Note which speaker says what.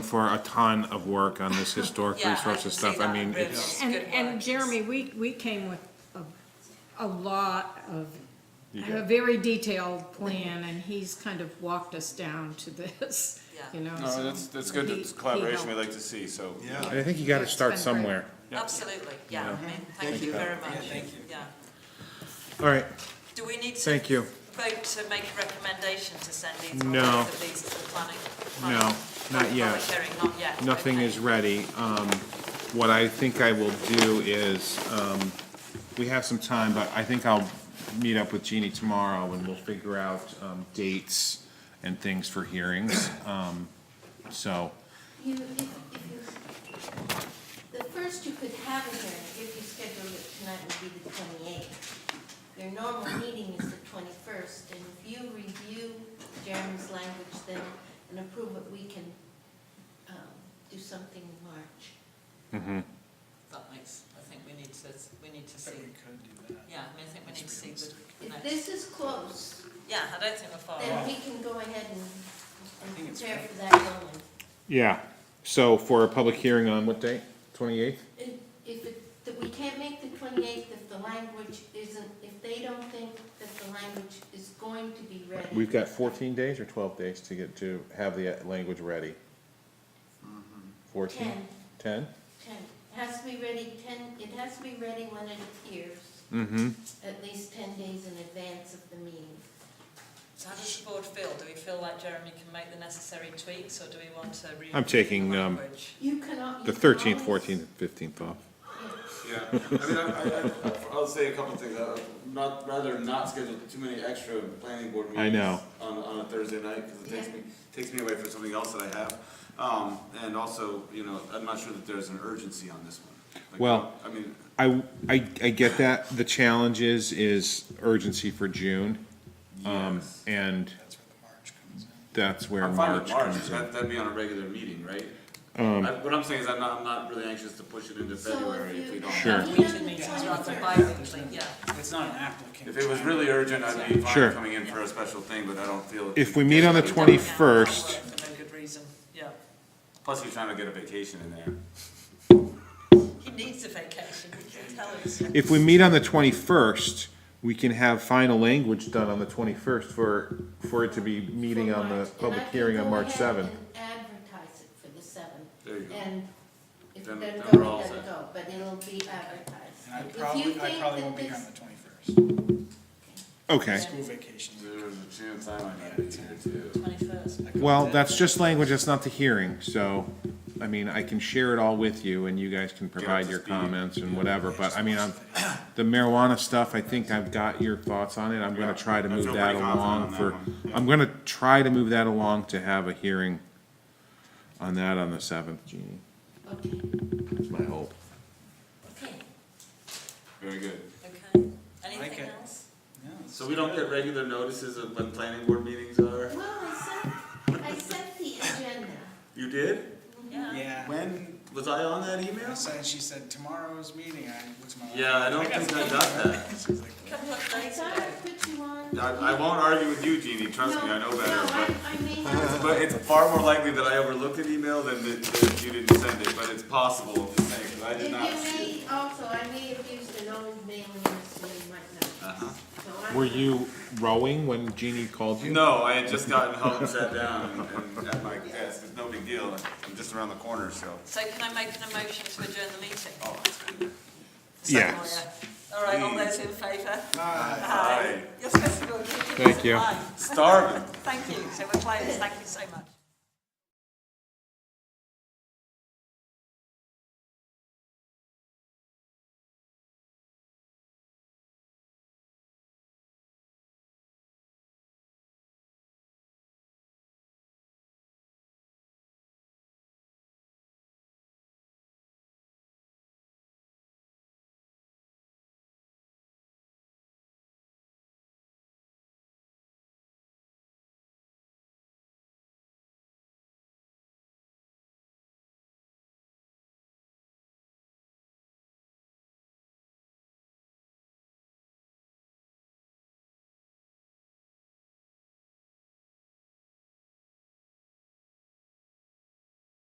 Speaker 1: for a ton of work on this historic
Speaker 2: Yeah, I
Speaker 1: resources
Speaker 2: can see
Speaker 1: stuff. I
Speaker 2: that.
Speaker 1: mean,
Speaker 2: Really.
Speaker 1: it's,
Speaker 3: And,
Speaker 2: Good
Speaker 3: and
Speaker 2: work.
Speaker 3: Jeremy, we, we came with a, a lot of,
Speaker 1: You
Speaker 3: a
Speaker 1: got-
Speaker 3: very detailed plan, and he's kind of walked us down to this,
Speaker 2: Yeah.
Speaker 3: you know.
Speaker 4: No,
Speaker 3: so
Speaker 4: that's, that's good,
Speaker 3: he-
Speaker 4: it's collaboration
Speaker 3: he
Speaker 4: we
Speaker 3: helped.
Speaker 4: like to see, so.
Speaker 5: Yeah,
Speaker 1: I think you gotta
Speaker 3: Yeah, it's
Speaker 1: start
Speaker 3: been great.
Speaker 1: somewhere.
Speaker 2: Absolutely, yeah, I mean, thank you very much. Thank you. Yeah.
Speaker 1: All right,
Speaker 2: Do we need to?
Speaker 1: Thank you.
Speaker 2: Vote to make a recommendation to send these, or
Speaker 1: No.
Speaker 2: both of these to the planning?
Speaker 1: No,
Speaker 2: planning-
Speaker 1: not
Speaker 2: public
Speaker 1: yet.
Speaker 2: hearing, not yet.
Speaker 1: nothing
Speaker 2: okay.
Speaker 1: is ready. Um, what I think I will do is, um, we have some time, but I think I'll meet up with Jeannie tomorrow and we'll figure out, um, dates and things for hearings. Um, so,
Speaker 6: You, if, if you, the first you could have in here, if you scheduled it tonight, would be the twenty-eighth. Your normal meeting is the twenty-first, and if you review Jeremy's language then and approve it, we can, um, do something in March.
Speaker 2: That makes, I think we need to, we need to see. Yeah, I mean, I think we need to see the
Speaker 6: If
Speaker 2: next,
Speaker 6: this is close,
Speaker 2: yeah, I don't think we're far
Speaker 6: then
Speaker 2: off.
Speaker 6: we can go ahead and, and prepare for that going.
Speaker 1: yeah, so for a public hearing on what date? Twenty-eighth?
Speaker 6: If, if it, that we can't make the twenty-eighth if the language isn't, if they don't think that the language is going to be ready.
Speaker 1: We've got fourteen days or twelve days to get, to have the uh, language ready? Mm-hmm. Fourteen? Ten?
Speaker 6: Ten, it has to be ready ten, it has to be ready when it appears,
Speaker 1: Mm-hmm.
Speaker 6: at least ten days in advance of the meeting.
Speaker 2: So how does the board feel? Do we feel like Jeremy can make the necessary tweaks, or do we want to re?
Speaker 1: I'm taking,
Speaker 2: the
Speaker 1: um,
Speaker 2: language?
Speaker 6: You can al- you
Speaker 1: The
Speaker 6: can
Speaker 1: thirteenth,
Speaker 6: always-
Speaker 1: fourteenth, and fifteenth off.
Speaker 4: Yeah, I mean, I, I, I'll say a couple things, I, not, rather not schedule too many extra planning board meetings.
Speaker 1: I know.
Speaker 4: On, on a Thursday night, cause it takes me, takes me away from something else that I have, um, and also, you know, I'm not sure that there's an urgency on this one. Like,
Speaker 1: Well-
Speaker 4: I mean,
Speaker 1: I, I, I get that. The challenge is, is urgency for June. Um,
Speaker 4: yes,
Speaker 1: and that's where
Speaker 4: I'm fine
Speaker 1: March
Speaker 4: with March,
Speaker 1: comes in.
Speaker 4: that, that'd be on a regular meeting, right? Um. What I'm saying is I'm not, I'm not really anxious to push it into
Speaker 6: So
Speaker 4: February
Speaker 6: if
Speaker 4: if we
Speaker 6: you,
Speaker 4: don't.
Speaker 1: Sure.
Speaker 6: if you have
Speaker 2: Meeting
Speaker 6: the
Speaker 2: meetings rather than
Speaker 6: 21st,
Speaker 2: bi-weekly, yeah.
Speaker 7: It's not an applicant.
Speaker 4: If it was really urgent, I'd be
Speaker 1: Sure.
Speaker 4: fine coming in for a special thing, but I don't feel.
Speaker 1: If we meet on the
Speaker 2: Yeah,
Speaker 1: twenty-first,
Speaker 2: For no good reason, yeah.
Speaker 4: Plus, he's trying to get a vacation in there.
Speaker 2: He needs a vacation, he can tell us.
Speaker 1: if we meet on the twenty-first, we can have final language done on the twenty-first for, for it to be meeting
Speaker 6: for
Speaker 1: on the
Speaker 6: March, and I
Speaker 1: public
Speaker 6: can
Speaker 1: hearing
Speaker 6: go
Speaker 1: on March
Speaker 6: ahead
Speaker 1: seventh.
Speaker 6: and Advertise it for the seventh.
Speaker 4: There you go.
Speaker 6: And if it
Speaker 4: Then-
Speaker 6: doesn't
Speaker 4: then we're
Speaker 6: go,
Speaker 4: all
Speaker 6: it doesn't
Speaker 4: set.
Speaker 6: go, but it'll be advertised.
Speaker 7: And I
Speaker 6: If you
Speaker 7: probably, I
Speaker 6: think
Speaker 7: probably
Speaker 6: that
Speaker 7: won't be here
Speaker 6: this-
Speaker 7: on the twenty-first,
Speaker 1: Okay,
Speaker 7: school vacation.
Speaker 4: There's a chance I might not be here too.
Speaker 2: Twenty-first.
Speaker 1: well, that's just language, that's not the hearing, so, I mean, I can share it all with you and you guys can provide
Speaker 4: to
Speaker 1: your
Speaker 4: speed.
Speaker 1: comments and whatever, but I mean, I'm, the marijuana stuff, I think I've got your thoughts on it, I'm gonna try to
Speaker 4: I
Speaker 1: move
Speaker 4: feel
Speaker 1: that
Speaker 4: pretty confident
Speaker 1: along
Speaker 4: on
Speaker 1: for,
Speaker 4: that one, yeah.
Speaker 1: I'm gonna try to move that along to have a hearing on that on the seventh, Jeannie,
Speaker 6: Okay,
Speaker 1: is my hope.
Speaker 6: okay.
Speaker 4: Very good.
Speaker 2: Okay,
Speaker 7: Like
Speaker 2: anything
Speaker 7: it.
Speaker 2: else?
Speaker 4: So we don't get regular notices of when planning board meetings are?
Speaker 6: Well, I sent, I sent the agenda.
Speaker 4: You did?
Speaker 2: Yeah.
Speaker 7: Yeah.
Speaker 4: When? Was I on that email?
Speaker 7: I said, she said tomorrow's meeting, I looked at my.
Speaker 4: Yeah, I don't think I got that.
Speaker 7: She's like,
Speaker 2: A couple of
Speaker 6: I
Speaker 2: days
Speaker 6: thought
Speaker 2: ago.
Speaker 6: I put you on.
Speaker 4: I, I won't argue with you, Jeannie, trust me, I know
Speaker 6: No, No,
Speaker 4: better,
Speaker 6: I, I may have.
Speaker 4: but, but it's far more likely that I overlooked an email than that, that you didn't send it, but it's possible, I'm just saying, 'cause I
Speaker 6: If
Speaker 4: did
Speaker 6: you
Speaker 4: not see it.
Speaker 6: may, also, I may have used an old mailing list, so you might
Speaker 4: Uh-huh.
Speaker 6: not. So I'm-
Speaker 1: Were you rowing when Jeannie called you?
Speaker 4: No, I had just gotten home and sat down and, and at my desk, it's no big deal, I'm just around the corner, so.
Speaker 2: So can I make an emotion to adjourn the meeting?
Speaker 4: Oh, that's good.
Speaker 2: Second,
Speaker 1: Yes.
Speaker 2: yeah. All right, all
Speaker 4: Please.
Speaker 2: those in favour?
Speaker 4: Aye.
Speaker 2: You're supposed to go.
Speaker 1: Thank you.
Speaker 2: Aye.
Speaker 4: Starving.
Speaker 2: Thank you, so we're closed, thank you so much.